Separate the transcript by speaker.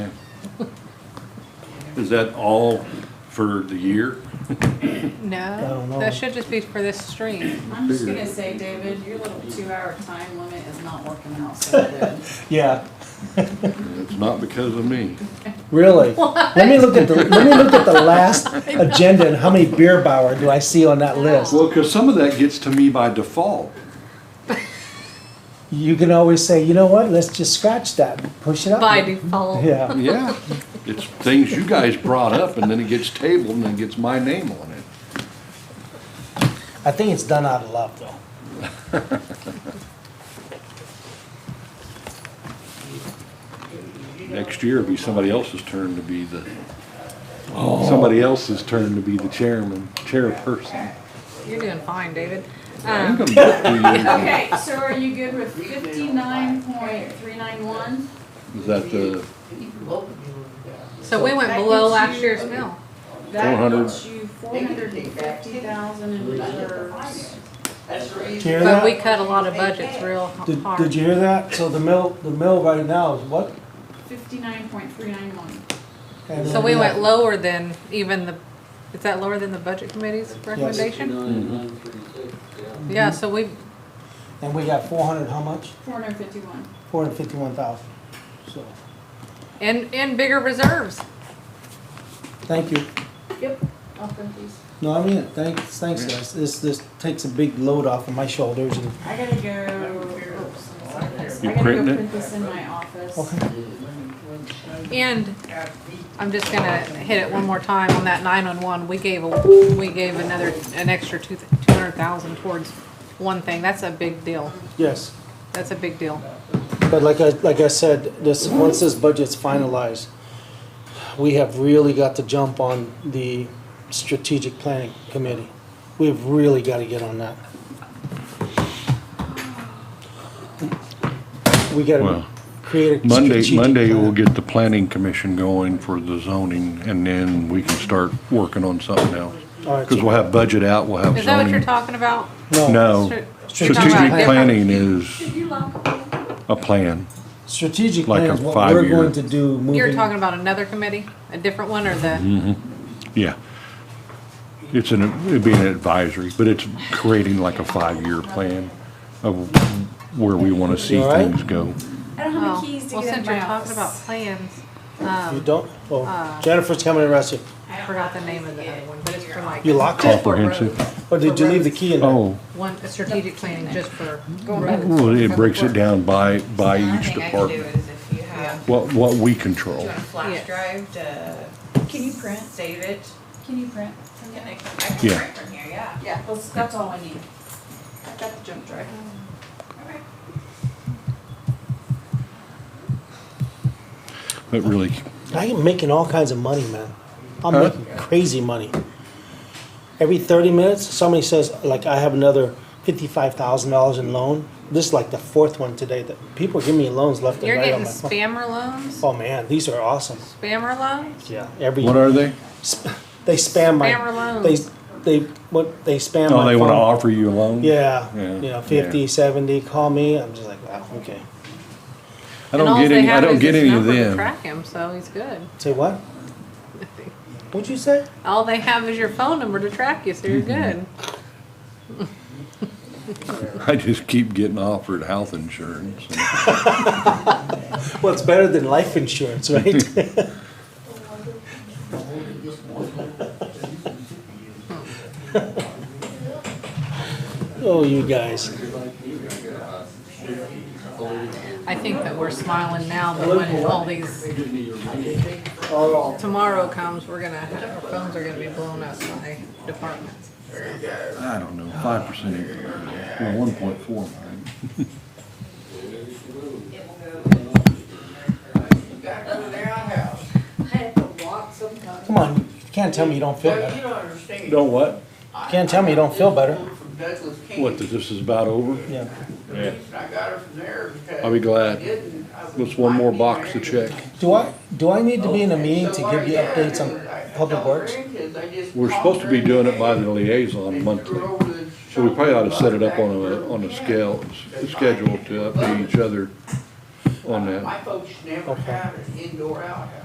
Speaker 1: Is that all for the year?
Speaker 2: No,
Speaker 3: don't know.
Speaker 2: that should just be for this stream.
Speaker 4: I'm just gonna say, David, your little two-hour time limit is not working out so good.
Speaker 3: Yeah,
Speaker 1: It's not because of me.
Speaker 3: really. Let me look at the, let me look at the last agenda and how many beer bauer do I see on that list?
Speaker 1: Well, because some of that gets to me by default.
Speaker 3: You can always say, you know what, let's just scratch that, push it up.
Speaker 2: By default.
Speaker 3: Yeah,
Speaker 1: Yeah, it's things you guys brought up and then it gets tabled and then gets my name on it.
Speaker 3: I think it's done out of love though.
Speaker 1: Next year it'll be somebody else's turn to be the, somebody else's turn to be the chairman, chairperson.
Speaker 2: You're doing fine, David.
Speaker 1: I'm
Speaker 2: Um,
Speaker 1: gonna uh, look through
Speaker 4: Okay, so are you good with fifty-nine point three nine one?
Speaker 1: you. Is that the,
Speaker 2: so we went
Speaker 4: That
Speaker 2: below
Speaker 4: gets
Speaker 2: last
Speaker 4: you-
Speaker 2: year's mill.
Speaker 4: That
Speaker 1: 400.
Speaker 4: gets you four hundred and fifty thousand in reserves.
Speaker 3: Did you hear
Speaker 2: But we
Speaker 3: that?
Speaker 2: cut a lot of budgets real
Speaker 3: Did,
Speaker 2: hard.
Speaker 3: did you hear that? So the mill, the mill right now is what?
Speaker 4: Fifty-nine point three nine one.
Speaker 3: And
Speaker 2: So we
Speaker 3: then
Speaker 2: went
Speaker 3: that-
Speaker 2: lower than even the, is that lower than the budget committee's recommendation? Yeah, so we,
Speaker 3: And we got four hundred, how much?
Speaker 4: Four hundred fifty-one.
Speaker 3: Four hundred fifty-one thousand. So,
Speaker 2: and, and bigger reserves.
Speaker 3: thank you.
Speaker 4: Yep. I'll print these.
Speaker 3: No, I mean, it. thanks, thanks guys. This, this takes a big load off of my shoulders and,
Speaker 4: I gotta go. oops, I'm sorry, guys.
Speaker 1: You
Speaker 4: I gotta go
Speaker 1: printing it?
Speaker 4: print this in my office.
Speaker 3: okay.
Speaker 2: And I'm just gonna hit it one more time on that nine-on-one, we gave, a we gave another, an extra two, two hundred thousand towards one thing, that's a big deal,
Speaker 3: Yes.
Speaker 2: that's a big deal.
Speaker 3: But like I, like I said, this, once this budget's finalized, we have really got to jump on the strategic planning committee. We've really gotta get on that. We gotta
Speaker 1: Well,
Speaker 3: create a
Speaker 1: Monday,
Speaker 3: strategic
Speaker 1: Monday
Speaker 3: plan.
Speaker 1: we'll get the planning commission going for the zoning and then we can start working on something else.
Speaker 3: All right,
Speaker 1: Because we'll have budget out, we'll have
Speaker 2: Is that what you're
Speaker 1: zoning.
Speaker 2: talking about?
Speaker 3: No,
Speaker 1: No,
Speaker 2: Strat- you're talking
Speaker 1: strategic
Speaker 2: about different-
Speaker 1: planning is a plan.
Speaker 3: strategic
Speaker 1: Like
Speaker 3: plan
Speaker 1: a
Speaker 3: is what we're
Speaker 1: five-year-
Speaker 3: going to do moving. Mm.
Speaker 2: You're talking about another committee, a different one, or the,
Speaker 1: Yeah. It's an, it'd be an advisory, but it's creating like a five-year plan of where we want to see
Speaker 3: You all right?
Speaker 1: things go.
Speaker 5: I don't have
Speaker 2: oh,
Speaker 5: the keys to
Speaker 2: well,
Speaker 5: get in
Speaker 2: since
Speaker 5: my
Speaker 2: you're talking about
Speaker 5: office.
Speaker 2: plans,
Speaker 3: You
Speaker 2: um,
Speaker 3: don't, oh, Jennifer's coming to arrest you.
Speaker 2: I forgot the name of the other one, but it's for like.
Speaker 3: You locked it?
Speaker 1: Comprehensive.
Speaker 3: Or did you leave the key in there?
Speaker 1: Oh,
Speaker 2: One, a strategic planning just for roads.
Speaker 1: Mm-hmm. well, it breaks it down by, by each department,
Speaker 6: is if you have,
Speaker 1: what, what we control.
Speaker 6: a
Speaker 2: Yes.
Speaker 6: flash drive to
Speaker 4: Can you print?
Speaker 6: save it?
Speaker 4: Can you print?
Speaker 6: Can I, I can
Speaker 1: Yeah.
Speaker 6: print from here, yeah.
Speaker 4: Yeah, that's, that's all I need. I've got the jump drive.
Speaker 6: Okay.
Speaker 1: But really,
Speaker 3: I am making all kinds of money, man. I'm
Speaker 1: Huh?
Speaker 3: making crazy money. Every 30 minutes, somebody says, like, I have another $55,000 in loan. This is like the fourth one today that people are giving me loans left and
Speaker 2: You're
Speaker 3: right
Speaker 2: getting
Speaker 3: on my phone.
Speaker 2: spammer loans,
Speaker 3: Oh, man, these are awesome.
Speaker 2: spammer loans?
Speaker 3: Yeah, every,
Speaker 1: what are they?
Speaker 3: sp- they spam my,
Speaker 2: Spammer
Speaker 3: they,
Speaker 2: loans.
Speaker 3: they, what, they spam
Speaker 1: Oh,
Speaker 3: my
Speaker 1: they
Speaker 3: phone.
Speaker 1: want to offer you a loan?
Speaker 3: Yeah,
Speaker 1: Yeah,
Speaker 3: you know,
Speaker 1: yeah.
Speaker 3: 50, 70, call me. I'm just like, wow, okay.
Speaker 1: I
Speaker 2: And
Speaker 1: don't
Speaker 2: alls
Speaker 1: get
Speaker 2: they
Speaker 1: any, I
Speaker 2: have
Speaker 1: don't
Speaker 2: is
Speaker 1: get
Speaker 2: his
Speaker 1: any of
Speaker 2: number to
Speaker 1: them.
Speaker 2: Track him, so he's good.
Speaker 3: Say what? What'd you say?
Speaker 2: All they have is your phone number to track you, so you're
Speaker 1: Mm-hmm.
Speaker 2: good.
Speaker 1: I just keep getting offered health insurance.
Speaker 3: Well, it's better than life insurance, right? oh, you guys.
Speaker 2: I think that we're smiling now, but when all these,
Speaker 3: Oh,
Speaker 2: tomorrow comes, we're gonna, have- our phones are gonna be blown up by departments.
Speaker 1: I don't know, five percent, one point four nine.
Speaker 3: Come on, you can't tell me you don't feel better.
Speaker 7: don't understand.
Speaker 1: Don't what?
Speaker 3: You can't tell me you don't feel better.
Speaker 7: From Douglas County.
Speaker 1: What, that this is about over?
Speaker 3: Yeah.
Speaker 7: The reason I got her from there because.
Speaker 1: I'll be glad.
Speaker 7: I didn't, I was
Speaker 1: What's one more
Speaker 7: fighting
Speaker 1: box to
Speaker 7: her.
Speaker 1: check?
Speaker 3: Do I do I need to be in a
Speaker 7: And
Speaker 3: meeting
Speaker 7: so
Speaker 3: to
Speaker 7: what I
Speaker 3: give you
Speaker 7: did
Speaker 3: updates
Speaker 7: is I- I
Speaker 3: on public
Speaker 7: told
Speaker 3: works?
Speaker 7: her kids, I just
Speaker 1: We're
Speaker 7: called
Speaker 1: supposed to
Speaker 7: her
Speaker 1: be
Speaker 7: and
Speaker 1: doing it
Speaker 7: they-
Speaker 1: by the
Speaker 7: they
Speaker 1: liaison
Speaker 7: threw
Speaker 1: monthly,
Speaker 7: over the
Speaker 1: so we probably ought to set it up on
Speaker 7: shoulder
Speaker 1: a, on a
Speaker 7: back
Speaker 1: scale, a schedule to update each other on that.
Speaker 7: My folks never
Speaker 3: Okay.
Speaker 7: had an indoor outhouse.